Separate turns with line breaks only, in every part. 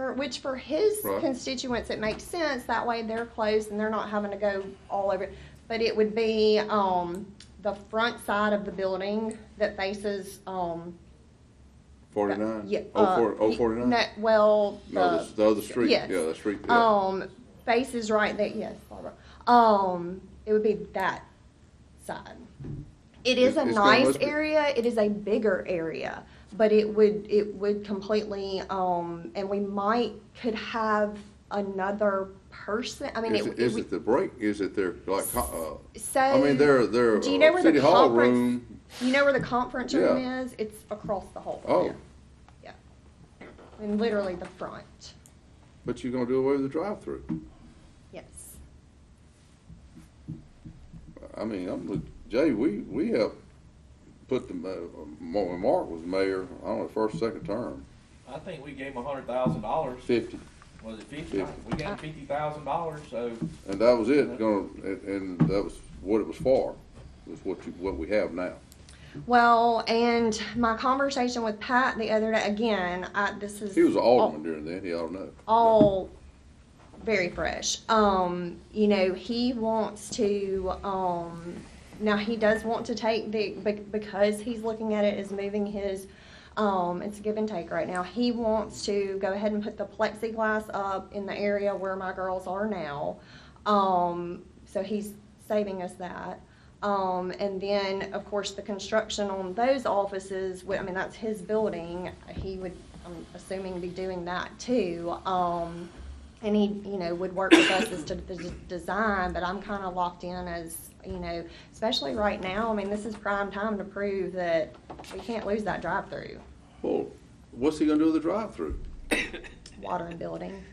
for, which for his
Right.
constituents, it makes sense, that way they're close and they're not having to go all over. But it would be, um, the front side of the building that faces, um. the-
Forty-nine?
Yeah.
Oh,
uh,
four, oh,
y-
forty-nine?
no, Well,
No,
the,
this- the other street, yeah,
yes.
the street, yeah.
um, faces right there, yes, Barbara. Um, it would be that side. It is a
It's- it's gonna
nice
must be-
area, it is a bigger area, but it would, it would completely, um, and we might, could have another person, I mean,
Is
it,
it,
it
is
would,
it the break, is it their, like, co-
so.
uh, I mean, their, their
do you know
uh,
where the
city hall
conference-
room,
You know where the conference room
Yeah.
is? It's across the hall. from
oh,
there. Yeah. And literally the front,
but you're gonna do away with the drive-through.
yes.
I mean, I'm, with- Jay, we, we helped put the, ma- uh, when Mark was mayor, I don't know, first, second term,
I think we gave them a hundred thousand dollars,
fifty.
was it fifty? We gave them fifty thousand dollars, so,
And that was it, gonna, and, and that was what it was for, was what you, what we have now.
Well, and my conversation with Pat the other day, again, I, this is.
He was an alderman during then, he ought to know.
All very fresh. Um, you know, he wants to, um, now he does want to take the, be- because he's looking at it as moving his, um, it's a give and take right now. He wants to go ahead and put the plexiglass up in the area where my girls are now. Um, so he's saving us that. Um, and then, of course, the construction on those offices, wh- I mean, that's his building. He would, I'm assuming, be doing that too. Um, and he, you know, would work with us as to the d- design, but I'm kind of locked in as, you know, especially right now. I mean, this is prime time to prove that we can't lose that drive-through,
Well, what's he gonna do with the drive-through?
water and building.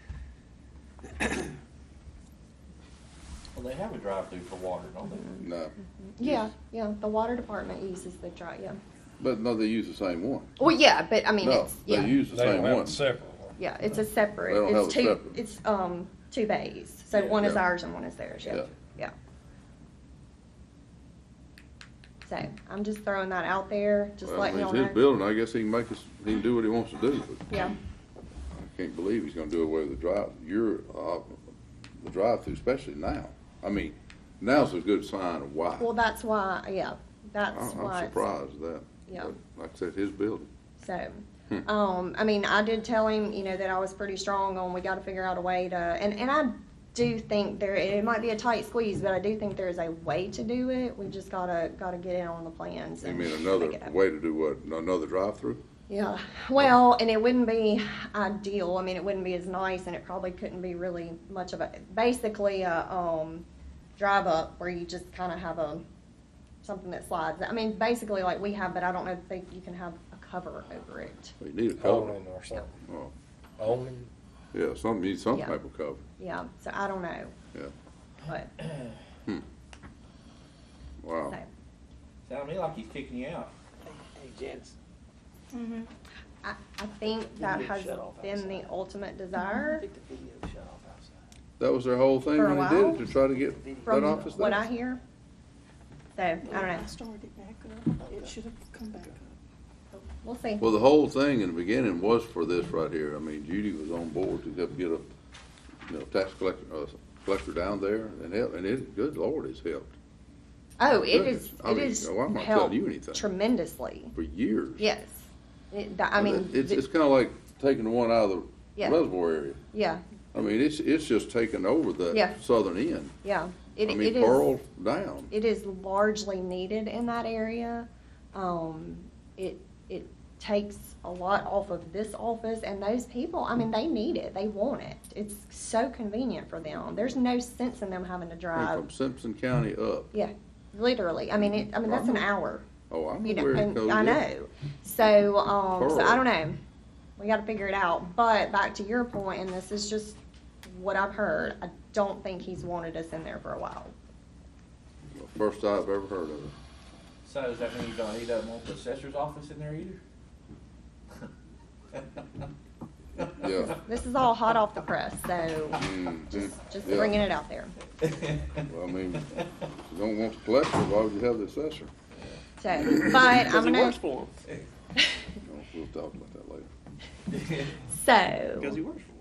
well, they have a drive-through for water, don't they?
No,
Yeah, yeah, the water department uses the drive, yeah.
but no, they use the same one.
Well, yeah, but I mean,
No,
it's, yeah.
they use the
They
same
don't have
one.
a separate one.
Yeah, it's a separate,
They don't have
it's
a
two,
separate.
it's, um, two bays, so
Yeah.
one is
Yeah.
ours and one is theirs, yeah,
Yeah.
yeah. So, I'm just throwing that out there, just
Well,
letting
it's
y'all
his
know.
building, I guess he can make us, he can do what he wants to do, but
Yeah,
I can't believe he's gonna do away with the drive, your, uh, the drive-through, especially now. I mean, now's a good sign of why.
well, that's why, yeah,
I-
that's why.
Oh, I'm
it's-
surprised at that.
Yeah.
But Like I said, his building.
So,
Hmm.
um, I mean, I did tell him, you know, that I was pretty strong on, we gotta figure out a way to, and, and I do think there, it might be a tight squeeze, but I do think there is a way to do it, we just gotta, gotta get in on the plans
You
and.
mean
make
another
it happen.
way to do what, another drive-through?
Yeah, well, and it wouldn't be ideal. I mean, it wouldn't be as nice, and it probably couldn't be really much of a basically a um, drive up where you just kind of have a something that slides. I mean, basically like we have, but I don't know if they, you can have a cover over it.
You need a cover.
Conan or something.
Oh,
Onan.
Yeah, some, you need some
Yeah.
type of cover,
Yeah, so I don't know,
yeah. Hmm.
but
Wow.
so.
Sound to me like he's kicking you out.
Hey, Janice.
Mm-hmm.
I, I think that
Video
has
shut off
been the
outside.
ultimate
I
desire.
think the video shut off outside.
That was their whole thing
For a
when they did it,
while?
to try to get
From
that office
what
there.
I hear, so I don't know.
I started it back up. It should have come back up.
We'll see.
Well, the whole thing in the beginning was for this right here. I mean, Judy was on board to help get a, you know, tax collector, uh, collector down there and help, and it, good Lord, it's helped
Oh, it
goodness.
is.
I
It
mean, oh,
is
why am I telling
helped
you anything?
tremendously.
for years.
Yes. It, th- I
And
mean,
it- It's,
th-
it's kinda like taking the one out of the
Yeah.
reservoir area.
yeah,
I mean, it's, it's just taken over the
Yeah.
southern end.
yeah.
I
It,
mean,
it is,
Pearl down.
it is largely needed in that area. Um, it, it takes a lot off of this office and those people, I mean, they need it. They want it. It's so convenient for them. There's no sense in them having to
I think
drive.
From Simpson County up.
Yeah, literally. I mean, it, I mean, that's an hour,
Oh, I'm
you know,
aware it
and
goes.
I
in.
know. So, um, so I
Pearl.
don't know. We gotta figure it out. But back to your point, and this is just what I've heard, I don't think he's wanted us in there for a while.
First I've ever heard of it.
So does that mean he don't, he doesn't want the assessor's office in there either?
Yeah.
This is all hot off the press, so
Mhm.
just, just
Yeah.
bringing it out there.
Mm. Well, I mean, if you don't want the collector, why would you have the assessor?
So, but I'm
Because it
gonna,
works for him.
We'll talk about that later.
so.
Because he works for him.